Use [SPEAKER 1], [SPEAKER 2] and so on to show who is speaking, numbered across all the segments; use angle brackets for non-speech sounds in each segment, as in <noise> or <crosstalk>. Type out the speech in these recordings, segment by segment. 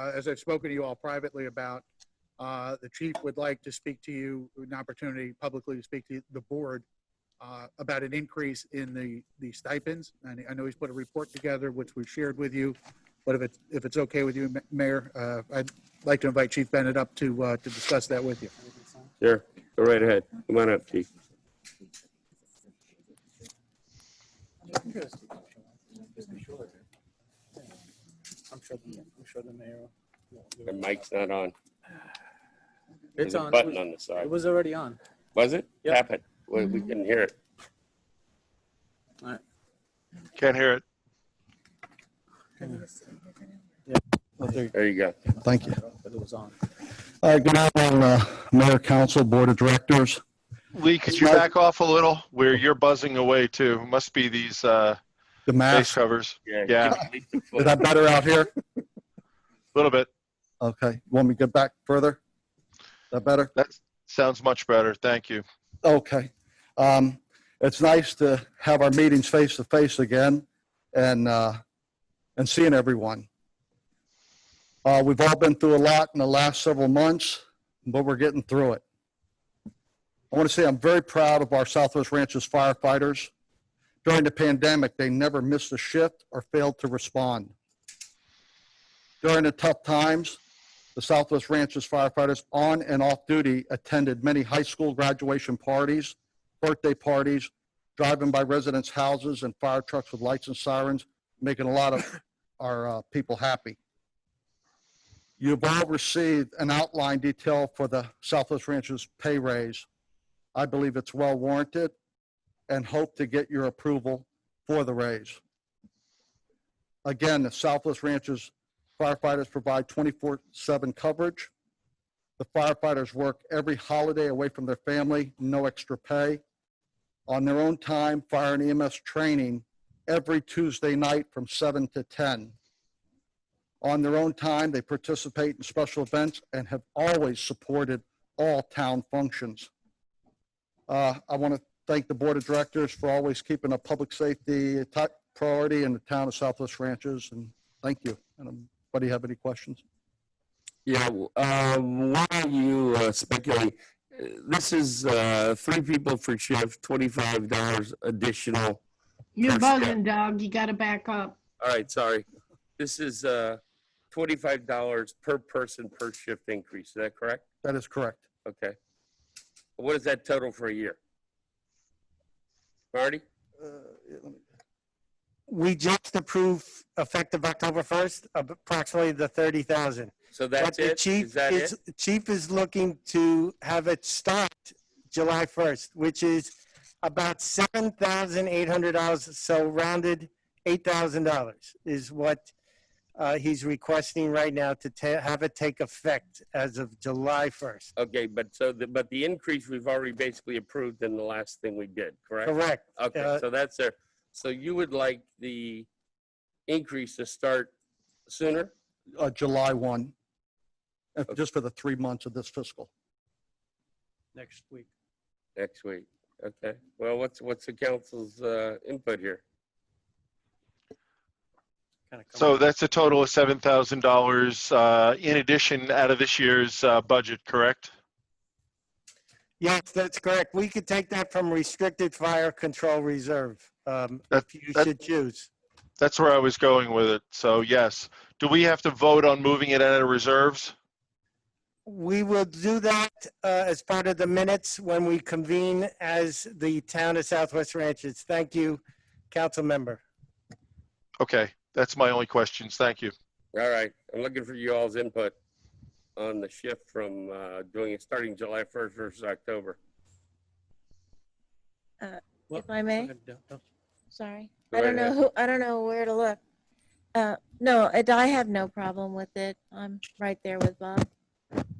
[SPEAKER 1] uh, as I've spoken to you all privately about, uh, the chief would like to speak to you, an opportunity publicly to speak to the board uh, about an increase in the, the stipends. And I know he's put a report together, which we've shared with you. But if it's, if it's okay with you, Ma- Mayor, uh, I'd like to invite Chief Bennett up to, uh, to discuss that with you.
[SPEAKER 2] Sure, go right ahead. Come on up, chief.
[SPEAKER 3] I'm sure, the- I'm sure the mayor. will do
[SPEAKER 2] Your
[SPEAKER 3] it.
[SPEAKER 2] mic's not on. There's
[SPEAKER 3] It's
[SPEAKER 2] a
[SPEAKER 3] on.
[SPEAKER 2] button on the
[SPEAKER 3] It
[SPEAKER 2] side.
[SPEAKER 3] was already on.
[SPEAKER 2] Was it?
[SPEAKER 3] Yep.
[SPEAKER 2] Tap it. We, we couldn't hear it.
[SPEAKER 4] Can't hear it.
[SPEAKER 2] There you go.
[SPEAKER 5] Thank you.
[SPEAKER 3] But it was on.
[SPEAKER 5] All right, good afternoon, uh, Mayor, Council, Board of Directors.
[SPEAKER 4] Lee, could you back off a little? Where you're buzzing away too. Must be these uh,
[SPEAKER 5] The
[SPEAKER 4] face
[SPEAKER 5] mask,
[SPEAKER 4] covers. Yeah.
[SPEAKER 2] give it at least a
[SPEAKER 5] is
[SPEAKER 2] foot.
[SPEAKER 5] that better out here?
[SPEAKER 4] A little bit.
[SPEAKER 5] <laughs> Okay, you want me to get back further? Is that better?
[SPEAKER 4] That sounds much better. Thank you.
[SPEAKER 5] Okay. Um, It's nice to have our meetings face to face again and, uh, and seeing everyone. Uh, We've all been through a lot in the last several months, but we're getting through it. I want to say I'm very proud of our Southwest Ranches firefighters. During the pandemic, they never missed a shift or failed to respond. During the tough times, the Southwest Ranches firefighters on and off duty attended many high school graduation parties, birthday parties, driving by residents' houses and fire trucks with lights and sirens, making a lot of our uh, people happy. You've all received an outline detail for the Southwest Ranches pay raise. I believe it's well warranted and hope to get your approval for the raise. Again, the Southwest Ranches Firefighters provide 24/7 coverage. The firefighters work every holiday away from their family, no extra pay. On their own time, fire and EMS training every Tuesday night from 7 to 10. On their own time, they participate in special events and have always supported all town functions. Uh, I want to thank the Board of Directors for always keeping a public safety top priority in the town of Southwest Ranches, and thank you. And I'm Buddy, have any questions?
[SPEAKER 2] Yeah, w- uh, why are you uh, speculating? Uh, This is uh, three people for shift, twenty-five dollars additional.
[SPEAKER 6] You're
[SPEAKER 2] Yes, yeah.
[SPEAKER 6] buzzing, Doug. You gotta back up.
[SPEAKER 2] All right, sorry. This is uh, twenty-five dollars per person per shift increase. Is that correct?
[SPEAKER 5] That is correct.
[SPEAKER 2] Okay. What is that total for a year? Marty?
[SPEAKER 7] we just approved effective October 1st, approximately the 30,000.
[SPEAKER 2] So that's
[SPEAKER 7] But the
[SPEAKER 2] it?
[SPEAKER 7] chief
[SPEAKER 2] Is that it?
[SPEAKER 7] is- Chief is looking to have it start July 1st, which is about $7,800, so rounded $8,000 is what uh, he's requesting right now to ta- have it take effect as of July 1st.
[SPEAKER 2] Okay, but so the, but the increase we've already basically approved in the last thing we did, correct?
[SPEAKER 7] Correct.
[SPEAKER 2] Okay,
[SPEAKER 7] Uh,
[SPEAKER 2] so that's there. So you would like the increase to start sooner?
[SPEAKER 5] Uh, July 1, uh,
[SPEAKER 2] Okay.
[SPEAKER 5] just for the three months of this fiscal.
[SPEAKER 3] Next week.
[SPEAKER 2] Next week. Okay, well, what's, what's the council's, uh, input here?
[SPEAKER 3] Kind of.
[SPEAKER 4] So that's a total of seven thousand uh, dollars in addition out of this year's uh, budget. Correct.
[SPEAKER 7] Yes, that's correct. We could take that from restricted fire control reserve, um,
[SPEAKER 4] That-
[SPEAKER 7] if you
[SPEAKER 4] that-
[SPEAKER 7] should choose.
[SPEAKER 4] That's where I was going with it. So yes. Do we have to vote on moving it out of reserves?
[SPEAKER 7] We will do that uh, as part of the minutes when we convene as the Town of Southwest Ranches. Thank you, council member.
[SPEAKER 4] Okay. That's my only questions. Thank you.
[SPEAKER 2] All right, I'm looking for you all's input on the shift from, uh, doing it, starting July first versus October.
[SPEAKER 3] Well,
[SPEAKER 8] If I may, sorry. I
[SPEAKER 2] Go
[SPEAKER 8] don't know
[SPEAKER 2] ahead.
[SPEAKER 8] who, I don't know where to look. Uh, no, I I have no problem with it. I'm right there with Bob.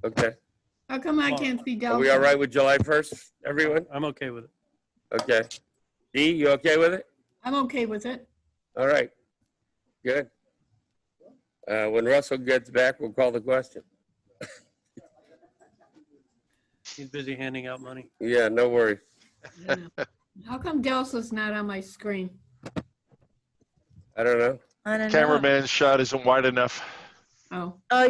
[SPEAKER 2] Okay,
[SPEAKER 6] How come I
[SPEAKER 3] Well,
[SPEAKER 6] can't see Doug?
[SPEAKER 2] are we all right with July first, everyone?
[SPEAKER 3] I'm okay with it.
[SPEAKER 2] Okay. Dee, you okay with it?
[SPEAKER 6] I'm okay with it.
[SPEAKER 2] All right, good. Uh, When Russell gets back, we'll call the question.
[SPEAKER 3] He's busy handing out money.
[SPEAKER 2] Yeah, no worries.
[SPEAKER 6] I don't know. How come Delsa's not on my screen?
[SPEAKER 2] I don't know.
[SPEAKER 8] I don't know.
[SPEAKER 4] Cameraman's shot isn't wide enough.
[SPEAKER 6] Oh.
[SPEAKER 8] Oh,